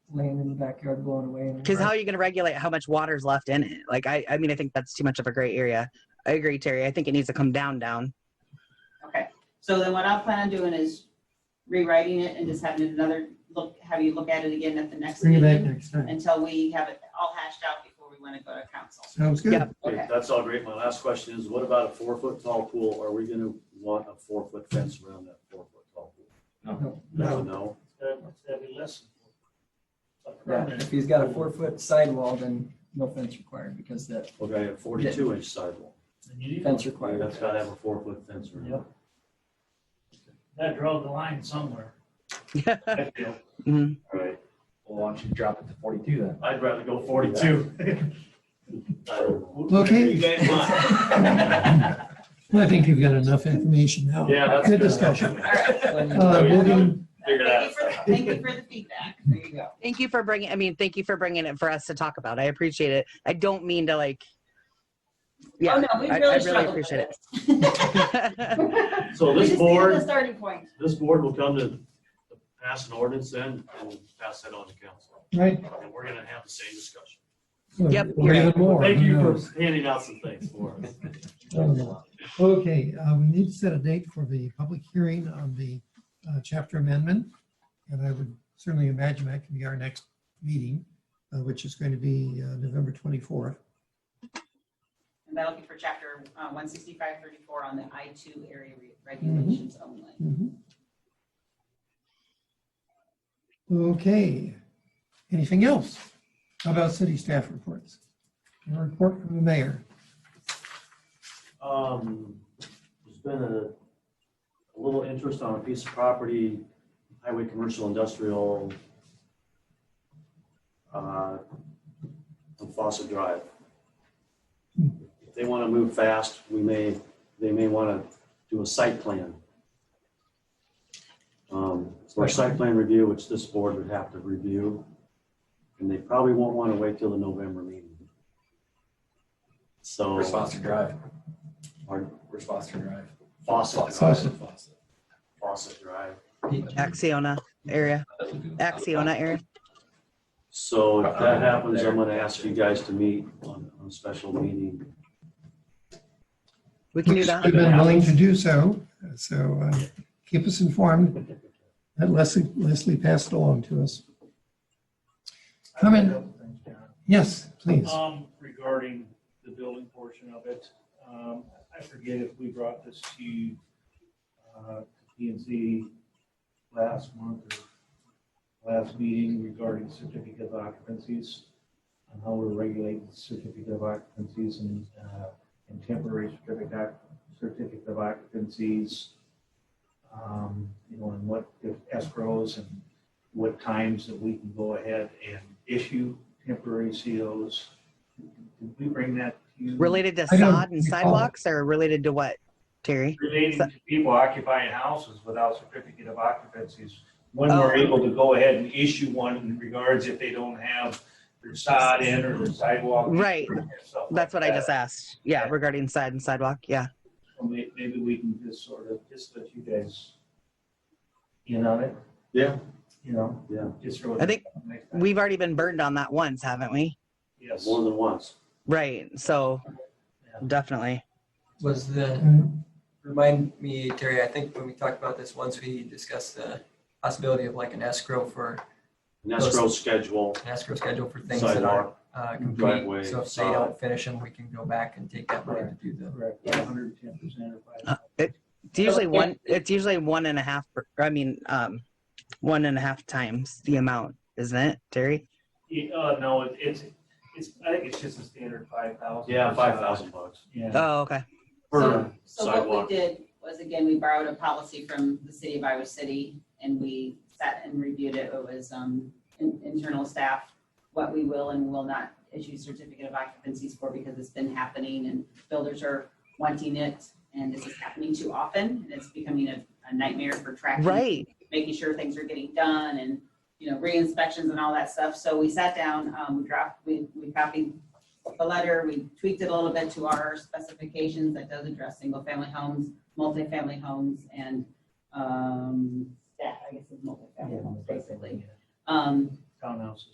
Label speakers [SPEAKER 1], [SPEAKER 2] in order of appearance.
[SPEAKER 1] laying in the backyard blowing away. and-
[SPEAKER 2] Because how are you going to regulate how much water's left in it? Like, I, I mean, I think that's too much of a gray area. I agree, Terry. I think it needs to come down, down.
[SPEAKER 3] Okay, so then what I'll plan on doing is rewriting it and just having another look, have you look at it again at the next
[SPEAKER 4] Bring it back
[SPEAKER 3] meeting
[SPEAKER 4] next time.
[SPEAKER 3] until we have it all hashed out before we want to go to council.
[SPEAKER 4] Sounds good.
[SPEAKER 2] Yeah.
[SPEAKER 3] Okay.
[SPEAKER 5] That's all great. My last question is, what about a four foot tall pool? Are we gonna want a four foot fence around that four foot tall pool?
[SPEAKER 1] No.
[SPEAKER 4] No.
[SPEAKER 5] No,
[SPEAKER 6] That'd be less.
[SPEAKER 1] Yeah, if he's got a four foot sidewall, then no fence required because that
[SPEAKER 5] okay, a forty two inch sidewalk.
[SPEAKER 1] fence
[SPEAKER 5] Well,
[SPEAKER 1] required.
[SPEAKER 5] That's gotta have a four foot fence around it.
[SPEAKER 6] That drove the line somewhere. I feel.
[SPEAKER 2] Mhm.
[SPEAKER 5] All right,
[SPEAKER 7] Well, why don't you drop it to forty-two then?
[SPEAKER 6] I'd rather go forty-two.
[SPEAKER 5] I don't know.
[SPEAKER 4] Okay.
[SPEAKER 6] You guys want?
[SPEAKER 4] Well, I think you've got enough information now.
[SPEAKER 6] Yeah, that's
[SPEAKER 4] Good
[SPEAKER 6] good.
[SPEAKER 4] discussion.
[SPEAKER 1] When-
[SPEAKER 4] Uh, moving,
[SPEAKER 3] Thank you
[SPEAKER 6] Figure that
[SPEAKER 3] for, the- thank you for the feedback.
[SPEAKER 1] There you go.
[SPEAKER 2] Thank you for bringing, I mean, thank you for bringing it for us to talk about. I appreciate it. I don't mean to like,
[SPEAKER 3] Oh,
[SPEAKER 2] yeah.
[SPEAKER 3] no, we
[SPEAKER 2] I- I
[SPEAKER 3] really
[SPEAKER 2] really
[SPEAKER 3] struggled with
[SPEAKER 2] appreciate
[SPEAKER 3] this.
[SPEAKER 5] So
[SPEAKER 3] We just
[SPEAKER 5] this
[SPEAKER 3] needed a
[SPEAKER 5] board,
[SPEAKER 3] starting point.
[SPEAKER 5] this board will come to pass an ordinance then and pass that on to council.
[SPEAKER 4] right?
[SPEAKER 5] And we're gonna have the same discussion.
[SPEAKER 2] Yep,
[SPEAKER 4] Or even more.
[SPEAKER 5] Thank
[SPEAKER 4] who
[SPEAKER 5] you
[SPEAKER 4] knows?
[SPEAKER 5] for handing out some things for us.
[SPEAKER 4] Oh, no. Okay, uh, we need to set a date for the public hearing on the uh, chapter amendment. And I would certainly imagine that can be our next meeting, uh, which is going to be uh, November 24th.
[SPEAKER 3] And that'll be for chapter uh, one sixty-five thirty-four on the I two area re- regulations only.
[SPEAKER 4] Mhm. Okay, anything else? How about city staff reports? A report from the mayor.
[SPEAKER 5] Um, there's been a, a little interest on a piece of property, highway commercial industrial, uh, on Fawcett Drive. If they want to move fast, we may, they may want to do a site plan. Um, for a site plan review, which this board would have to review, and they probably won't want to wait till the November meeting. So.
[SPEAKER 7] Response to drive.
[SPEAKER 5] Oh, Pardon?
[SPEAKER 7] Response to drive.
[SPEAKER 5] Fawcett Drive. Fawcett Drive.
[SPEAKER 2] Axiona area, Axiona area.
[SPEAKER 5] So if that happens, I'm gonna ask you guys to meet on, on a special meeting.
[SPEAKER 2] We can do that.
[SPEAKER 4] We've been willing to do so, so uh, keep us informed. And Leslie, Leslie passed it along to us. Come in. Yes, please.
[SPEAKER 6] Um, regarding the building portion of it, um, I forget if we brought this to, uh, P and Z last month or last meeting regarding certificate of occupancies and how we're regulating certificate of occupancies and, uh, and temporary certificate, oc- certificate of occupancies. Um, you know, and what if escrows and what times that we can go ahead and issue temporary COs. Did we bring that to you?
[SPEAKER 2] Related to
[SPEAKER 4] I don't
[SPEAKER 2] sod and
[SPEAKER 4] recall.
[SPEAKER 2] sidewalks or related to what, Terry?
[SPEAKER 6] Relating to people occupying houses without certificate of occupancies. When
[SPEAKER 2] Oh.
[SPEAKER 6] we're able to go ahead and issue one in regards if they don't have their sod in or their sidewalk. in,
[SPEAKER 2] Right.
[SPEAKER 6] and stuff like
[SPEAKER 2] That's what I
[SPEAKER 6] that.
[SPEAKER 2] just asked. Yeah, regarding side and sidewalk. Yeah.
[SPEAKER 6] So may- Maybe we can just sort of, just let you guys in on it,
[SPEAKER 5] Yeah.
[SPEAKER 6] you know?
[SPEAKER 5] Yeah.
[SPEAKER 6] Just throw it
[SPEAKER 2] I think
[SPEAKER 6] out next time.
[SPEAKER 2] We've already been burned on that once, haven't we?
[SPEAKER 6] Yes.
[SPEAKER 5] More than once.
[SPEAKER 2] Right. So
[SPEAKER 6] Yeah.
[SPEAKER 2] definitely.
[SPEAKER 1] Was the, remind me, Terry, I think when we talked about this once, we discussed the possibility of like an escrow for,
[SPEAKER 5] An escrow schedule,
[SPEAKER 1] an escrow schedule for things that aren't
[SPEAKER 5] sidewalk.
[SPEAKER 1] uh,
[SPEAKER 5] Driveway,
[SPEAKER 1] complete. So if they
[SPEAKER 5] sod.
[SPEAKER 1] don't finish them, we can go back and take that money to do the
[SPEAKER 6] Correct, 110% of five.
[SPEAKER 2] It's usually one. It's usually one and a half. per- I mean, um, one and a half times the amount, isn't it, Terry?
[SPEAKER 6] Yeah, uh, no, it- it's, it's, I think it's just a standard five thousand.
[SPEAKER 5] Yeah, five thousand bucks.
[SPEAKER 6] Yeah.
[SPEAKER 2] Oh, okay.
[SPEAKER 5] Per
[SPEAKER 3] So what
[SPEAKER 5] sidewalk.
[SPEAKER 3] we did was, again, we borrowed a policy from the city of Iowa City, and we sat and reviewed it. It was um, in- internal staff, what we will and will not issue certificate of occupancies for, because it's been happening, and builders are wanting it, and this is happening too often, and it's becoming a a nightmare for tracking
[SPEAKER 2] Right.
[SPEAKER 3] making sure things are getting done and, you know, re-inspections and all that stuff. So we sat down, um, dropped, we, we copied the letter, we tweaked it a little bit to our specifications that does address single-family homes, multifamily homes, and, um, yeah, I guess it's multifamily homes, basically. Um,
[SPEAKER 6] townhouses.